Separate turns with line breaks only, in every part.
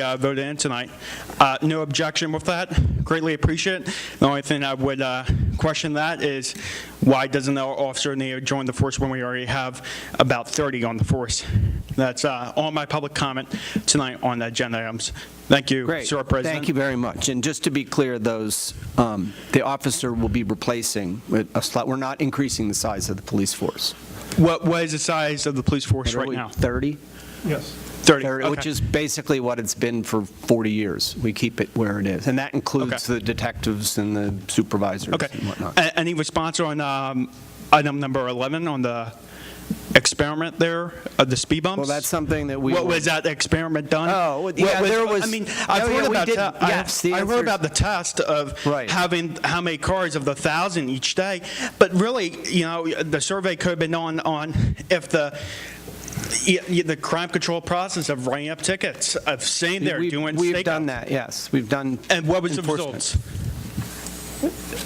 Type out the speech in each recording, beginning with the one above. uh, voted in tonight. Uh, No objection with that, greatly appreciate it. The only thing I would uh, question that is, why doesn't our officer need to join the force when we already have about 30 on the force? That's uh, all my public comment tonight on the agenda items. Thank you,
Great.
Sir President.
Thank you very much. And just to be clear, those, um, the officer will be replacing with a slot. We're not increasing the size of the police force.
What what is the size of the police force right now?
30?
Yes.
30,
Which
okay.
is basically what it's been for 40 years. We keep it where it is. And that includes
Okay.
the detectives and the supervisors
Okay.
and whatnot.
A- Any response on um, item number 11 on the experiment there of the speed bumps?
Well, that's something that we.
What
will-
was that experiment done?
Oh, well,
What
yeah, there
I
was-
mean, I've
Oh, yeah,
heard
we
about,
did-
that.
yes, the
I heard
answer-
about the test of
Right.
having how many cars of the thousand each day, but really, you know, the survey could have been on on if the. y- y- The crime control process of writing up tickets, of saying they're
We've-
doing
We've
stakeout.
done that, yes. We've done.
And what was the
enforcement.
results?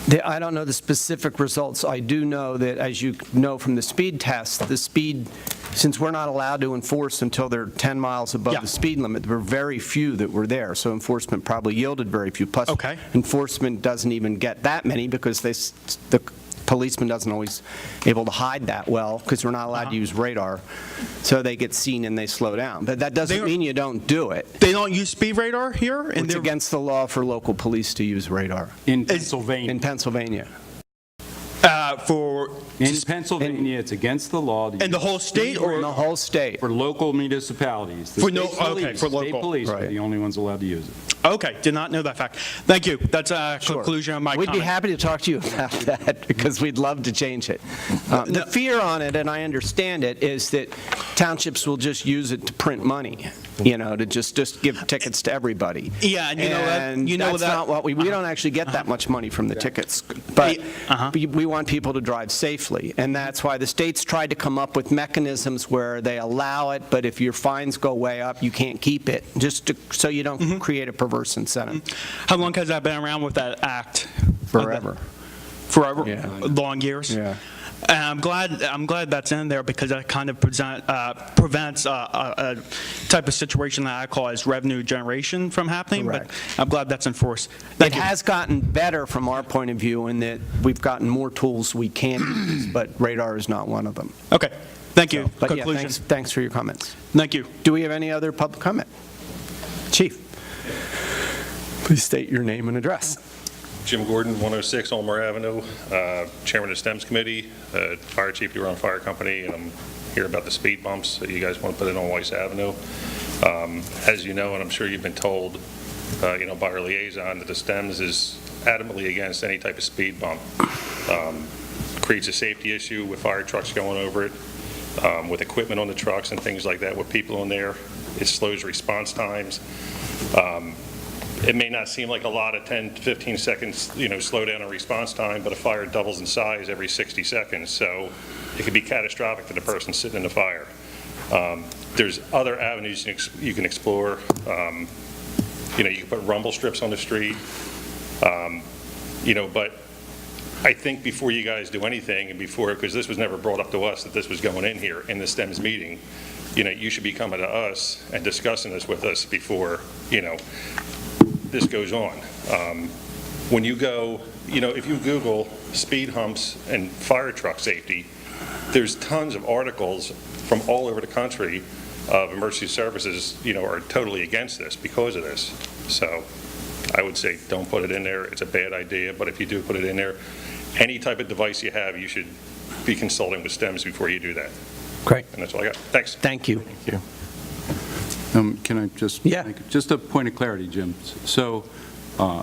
The- I don't know the specific results. I do know that, as you know from the speed test, the speed, since we're not allowed to enforce until they're 10 miles above
Yeah.
the speed limit, there were very few that were there, so enforcement probably yielded very few. Plus,
Okay.
enforcement doesn't even get that many because they, s- the policeman doesn't always able to hide that well because we're not allowed to
Uh-huh.
use radar. So they get seen and they slow down. But that
They
doesn't
are-
mean you don't do it.
They don't use speed radar here, and
It's
they're
against the law for local police to use radar
In
It's-
Pennsylvania.
in Pennsylvania.
uh, for
In Pennsylvania, it's against the law. to
and the
use
whole state,
In the
or
whole state.
For local municipalities. The
For no-
state
okay,
police-
for
State
local.
police are
Right.
the only ones allowed to use it.
okay, did not know that fact. Thank you. That's a
Sure.
conclusion of my
We'd
comment.
be happy to talk to you about that because we'd love to change it. Uh, The fear on it, and I understand it, is that townships will just use it to print money, you know, to just, just give tickets to everybody.
Yeah, and you know that-
And
you know
that's
that-
not what we, we don't actually get that much money from the tickets. But
Yeah, uh-huh.
we we want people to drive safely. And that's why the states tried to come up with mechanisms where they allow it, but if your fines go way up, you can't keep it, just to, so you
Mm-hmm.
don't create a perverse incentive
How long has that been around with that act?
forever.
Forever,
Yeah.
long years.
Yeah.
And I'm glad. I'm glad that's in there because that kind of present, uh, prevents uh, a, a type of situation that I call as revenue generation from happening.
Correct.
But I'm glad that's enforced.
It
Thank you.
has gotten better from our point of view in that we've gotten more tools we can use, but radar is not one of them.
okay. Thank you.
But yeah,
Conclusion.
thanks, thanks for your comments.
Thank you.
Do we have any other public comment? Chief? Please state your name and address.
Jim Gordon, 106 Olmer Avenue, uh, Chairman of STEMS Committee, uh, Fire Chief, you run Fire Company, and I'm here about the speed bumps that you guys want to put in on Weiss Avenue. Um, As you know, and I'm sure you've been told, uh, you know, by our liaison, that the STEMS is adamantly against any type of speed bump. Um, Creates a safety issue with fire trucks going over it, um, with equipment on the trucks and things like that, with people in there. It slows response times. Um, it may not seem like a lot of 10, 15 seconds, you know, slowdown in response time, but a fire doubles in size every 60 seconds, so it could be catastrophic to the person sitting in the fire. Um, There's other avenues you can ex- you can explore. Um, You know, you can put rumble strips on the street, Um, you know, but I think before you guys do anything, and before, because this was never brought up to us, that this was going in here in the STEMS meeting, you know, you should be coming to us and discussing this with us before, you know, this goes on. Um, When you go, you know, if you Google speed humps and fire truck safety, there's tons of articles from all over the country of emergency services, you know, are totally against this because of this. So I would say, don't put it in there. It's a bad idea, but if you do put it in there, any type of device you have, you should be consulting with STEMS before you do that.
Great.
And that's all I got. Thanks.
Thank you.
Um, Can I just?
Yeah.
make- Just a point of clarity, Jim. So uh,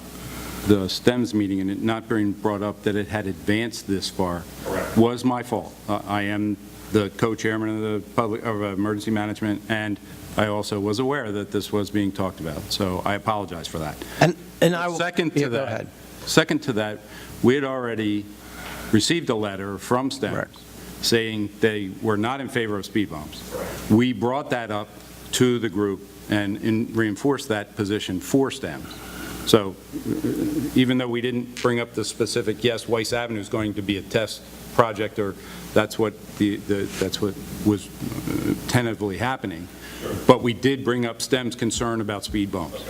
the STEMS meeting and it not being brought up that it had advanced this far
Correct.
was my fault. Uh, I am the co-chairman of the public, of uh, emergency management, and I also was aware that this was being talked about, so I apologize for that.
And, and I. will-
Second
Yeah, go
to that,
ahead.
second to that, we had already received a letter from
Right.
STEMS saying they were not in favor of speed bumps. We brought that up to the group and in- reinforced that position for STEMS. So even though we didn't bring up the specific, yes, Weiss Avenue is going to be a test project, or that's what the, the- that's what was uh, tentatively happening, But we did bring up STEM's concern about speed bumps.